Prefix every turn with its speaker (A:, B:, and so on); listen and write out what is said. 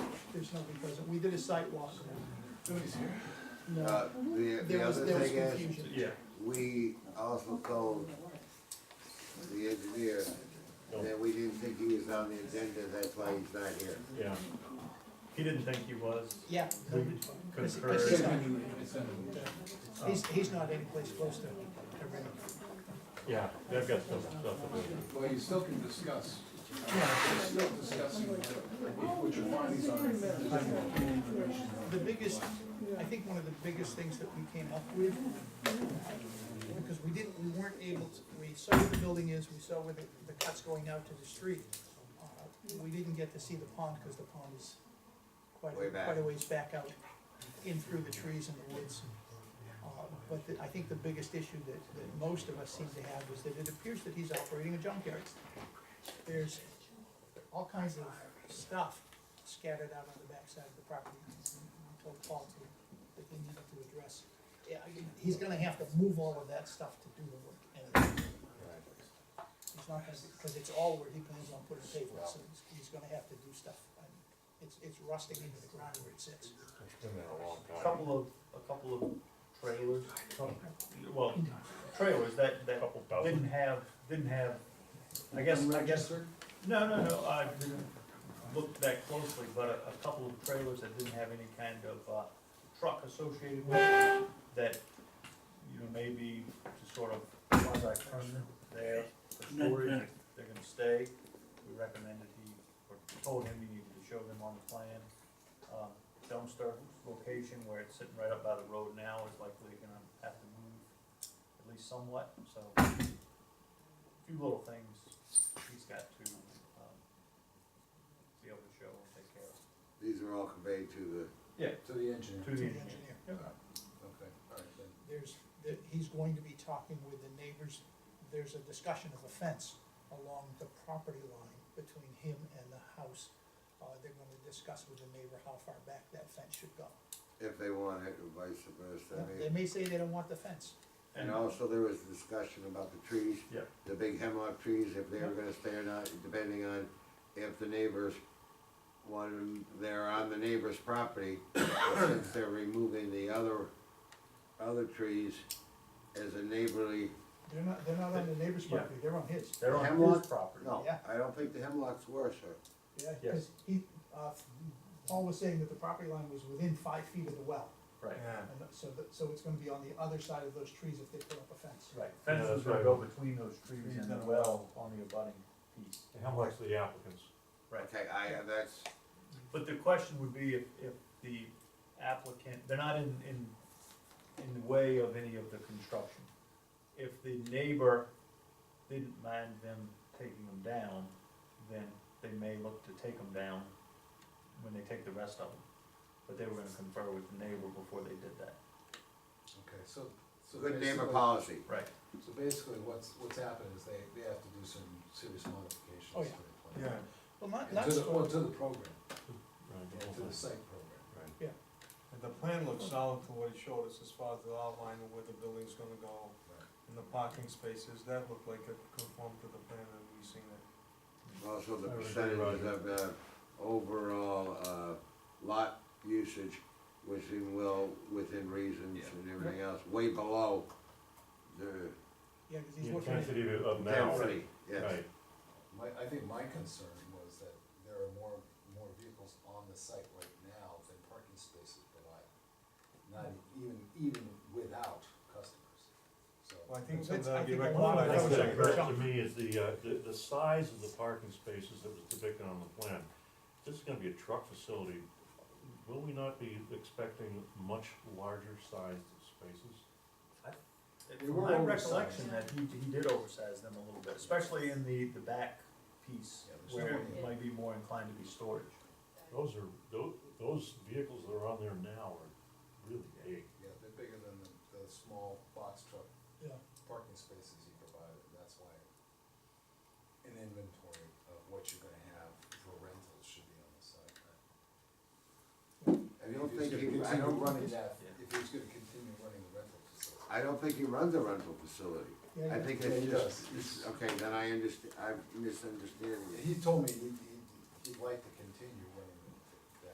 A: there's nobody present, we did a site walk.
B: Nobody's here.
A: No,
C: Uh, the, the
A: there was,
C: other
A: there was
C: thing is,
A: confusion.
D: Yeah,
C: we also called the engineer, that we didn't think he was on the agenda, that's why he's not here.
D: yeah. He didn't think he was.
A: Yeah,
D: We
A: Cause-
D: concurred.
A: cause he's not-
B: Send them.
A: he's, he's not any place close to, to Reading.
D: Yeah, they've got some stuff to do.
B: Well, you still can discuss. You're still discussing what your findings are.
A: The biggest, I think one of the biggest things that we came up with, because we didn't, we weren't able to, we saw where the building is, we saw where the, the cut's going out to the street. Uh, We didn't get to see the pond, cause the pond is quite,
C: Way back.
A: quite a ways back out, in through the trees and the woods. Uh, But the- I think the biggest issue that, that most of us seem to have is that it appears that he's operating a junkyard. There's all kinds of stuff scattered out on the backside of the property. I told Paul to, that they needed to address. Yeah, I- he's gonna have to move all of that stuff to do the work. and- It's not gonna, because it's all where he plans on putting pavements, so he's, he's gonna have to do stuff. I mean, It's, it's rusting into the ground where it sits.
D: It's been there a long
E: A
D: time.
E: Couple of, a couple of trailers, some-
D: Well,
E: trailers that, that
D: Couple thousand.
E: didn't have, didn't have, I guess, I guess, no, no, no, I didn't look that closely, but a, a couple of trailers that didn't have any kind of, uh, truck associated with it, that, you know, maybe to sort of quasi permanent there for storage, they're gonna stay. We recommended he, or told him he needed to show them on the plan. Um, dumpster location where it's sitting right up by the road now is likely gonna have to move at least somewhat, so. a Few little things he's got to, um, be able to show and take care of.
C: These are all conveyed to
B: To the engineer.
E: To
A: To the
E: the engineer.
A: engineer.
B: Okay, all right, then.
A: There's, that, he's going to be talking with the neighbors. There's a discussion of a fence along the property line between him and the house. Uh, they're gonna discuss with the neighbor how far back that fence should go.
C: the, if they want it, or vice versa, I
A: They
C: mean.
A: may say they don't want the fence.
C: And
E: And,
C: also, there was discussion about the trees.
D: Yeah.
C: The big hemlock trees, if they were gonna stay or not, depending on if the neighbors wanted, them- they're on the neighbor's property, but since they're removing the other, other trees as a neighborly
A: They're not, they're not on the neighbor's
D: Yeah.
A: property, they're on his.
E: they're on
C: Hemlock?
E: his property.
C: No,
A: Yeah.
C: I don't think the hemlock's were, sir.
A: Yeah,
D: Yes.
A: because he, uh, Paul was saying that the property line was within five feet of the well.
E: Right,
A: And that- so that, so it's gonna be on the other side of those trees if they put up a fence.
E: right.
D: Yeah,
E: Fence is
D: that's
E: gonna
D: right.
E: go between those trees and the well on the abutting piece.
D: How much the applicants?
E: Right.
C: Okay, I, uh, that's,
E: But the question would be if, if the applicant, they're not in, in, in the way of any of the construction. If the neighbor didn't mind them taking them down, then they may look to take them down when they take the rest of them. But they were gonna confer with the neighbor before they did that.
B: Okay, so. so
C: good neighbor
B: basically-
C: policy.
E: Right.
B: So basically, what's, what's happened is they, they have to do some serious modifications
A: Oh,
B: to
A: yeah.
B: the plan.
A: Well, not,
B: And
A: not,
B: to the, or
A: so-
B: to the program, and to the
D: Right.
B: site program.
F: And the plan looks solid from what he showed us as far as the outline of where the building's gonna go and the parking spaces, that looked like it conformed to the plan that we seen it.
C: Also, the
D: I would agree,
C: percentages
D: Roger.
C: of the overall, uh, lot usage was in well, within reasons
B: Yeah.
C: and everything else, way below the
A: yeah, because
D: The
A: he's looking at,
D: intensity of- of now.
C: density, yes.
D: Right,
B: My, I think my concern was that there are more, more vehicles on the site right now than parking spaces provide, not even, even without customers, so.
F: Well, I think
A: Well,
F: some of
A: that's-
F: that
A: I
F: would be
A: think a lot of
F: rectified.
A: that
D: That's
A: was
D: what
A: like-
D: occurred to me is the, uh, the, the size of the parking spaces that was depicted on the plan. This is gonna be a truck facility, will we not be expecting much larger sized spaces?
B: They
E: From
B: were
E: my
B: oversized.
E: recollection that he, he did oversize them a little bit, especially in the, the back piece
B: Yeah, there's
E: where
B: no-
E: it might be more inclined to be storage.
D: Those are, tho- those vehicles that are on there now are really big.
B: Yeah, they're bigger than the, the small box truck
A: yeah,
B: parking spaces you provided, and that's why an inventory of what you're gonna have for rentals should be on the site.
C: I don't
B: If he's
C: think he,
B: gonna
C: I
B: continue
C: don't,
B: running that,
E: Yeah.
B: if he's gonna continue running the rental facility.
C: I don't think he runs a rental facility.
A: yeah, yeah.
C: I think
B: Yeah, he
C: it's
B: does.
C: just, it's- okay, then I understand, I'm misunderstanding
B: Yeah,
C: it.
B: He told me he, he, he liked the